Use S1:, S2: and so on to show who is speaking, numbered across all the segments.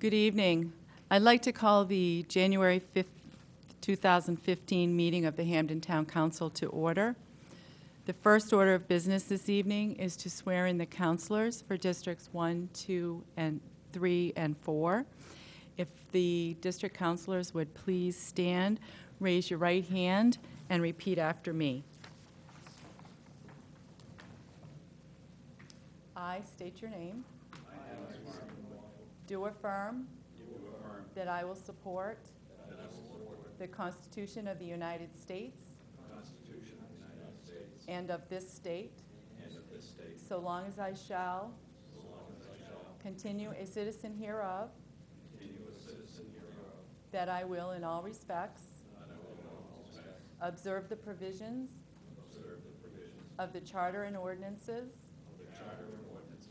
S1: Good evening. I'd like to call the January 5th, 2015 meeting of the Hamden Town Council to order. The first order of business this evening is to swear in the councilors for Districts 1, 2, and 3, and 4. If the district councilors would please stand, raise your right hand, and repeat after me. I state your name. Do affirm. That I will support. The Constitution of the United States. And of this state. So long as I shall. Continue a citizen hereof. That I will in all respects. Observe the provisions. Of the charter and ordinances.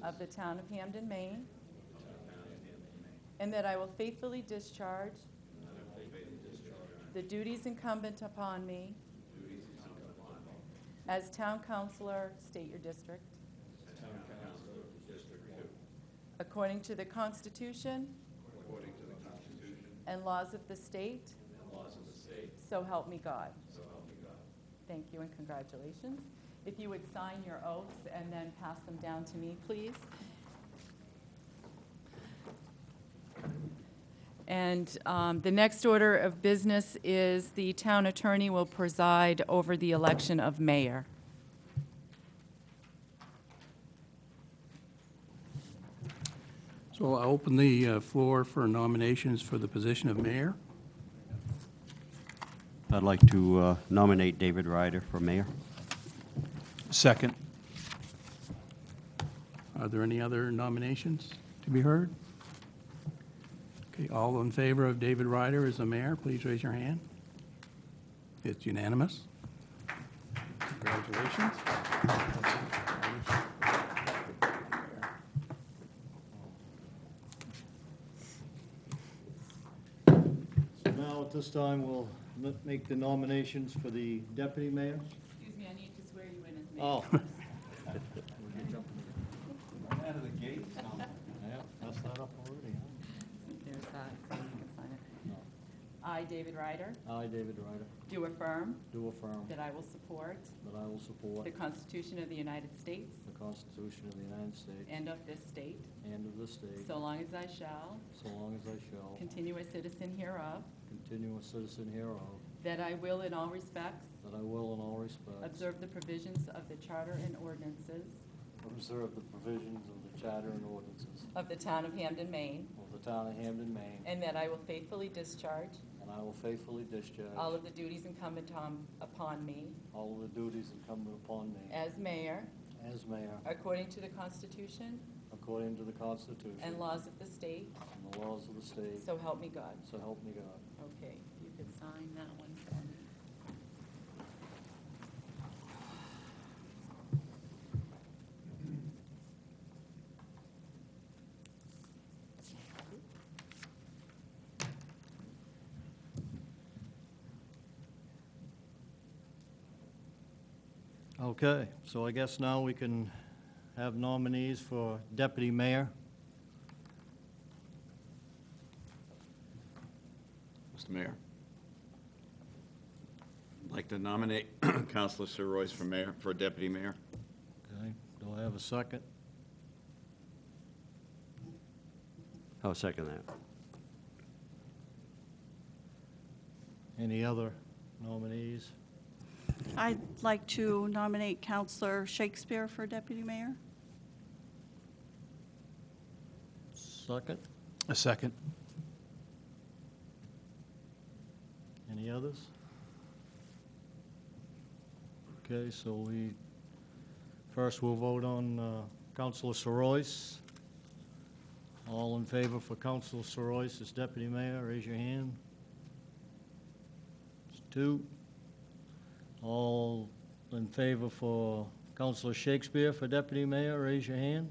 S1: Of the town of Hamden, Maine. And that I will faithfully discharge. The duties incumbent upon me. As town councilor, state your district. According to the Constitution. And laws of the state. So help me God. Thank you and congratulations. If you would sign your oaths and then pass them down to me, please. And um, the next order of business is the town attorney will preside over the election of mayor.
S2: So I'll open the uh, floor for nominations for the position of mayor.
S3: I'd like to uh, nominate David Ryder for mayor.
S4: Second.
S2: Are there any other nominations to be heard? Okay, all in favor of David Ryder as the mayor, please raise your hand. It's unanimous. Congratulations.
S5: So now, at this time, we'll m- make the nominations for the deputy mayor.
S1: Excuse me, I need to swear you in as
S5: Oh.
S3: Out of the gate.
S5: That's not up already,
S1: There's that, so you can sign it. I, David Ryder,
S5: huh? I, David Ryder,
S1: do affirm
S5: do affirm
S1: that I will support
S5: that I will support
S1: the Constitution of the United States
S5: the Constitution of the United States
S1: and of this state,
S5: and of the state,
S1: so long as I shall
S5: so long as I shall
S1: continue a citizen hereof,
S5: continue a citizen hereof,
S1: that I will in all respects
S5: that I will in all respects
S1: observe the provisions of the charter and ordinances
S5: observe the provisions of the charter and ordinances
S1: of the town of Hamden, Maine,
S5: of the town of Hamden, Maine,
S1: and that I will faithfully discharge
S5: and I will faithfully discharge
S1: all of the duties incumbent on- upon me
S5: all of the duties incumbent upon me
S1: as mayor,
S5: as mayor,
S1: according to the Constitution
S5: according to the Constitution
S1: and laws of the state,
S5: and the laws of the state,
S1: so help me God.
S5: So help me God.
S1: Okay, you could sign that one for me.
S5: Okay, so I guess now we can have nominees for deputy mayor.
S6: Mr. Mayor. I'd like to nominate Counselor Sir Royce for mayor, for deputy mayor.
S5: Okay, do I have a second?
S3: I'll second that.
S5: Any other nominees?
S7: I'd like to nominate Counselor Shakespeare for deputy mayor.
S5: Second?
S4: A second.
S5: Any others? Okay, so we, first we'll vote on uh, Counselor Soroyce. All in favor for Counselor Soroyce as deputy mayor, raise your hand. It's two. All in favor for Counselor Shakespeare for deputy mayor, raise your hand.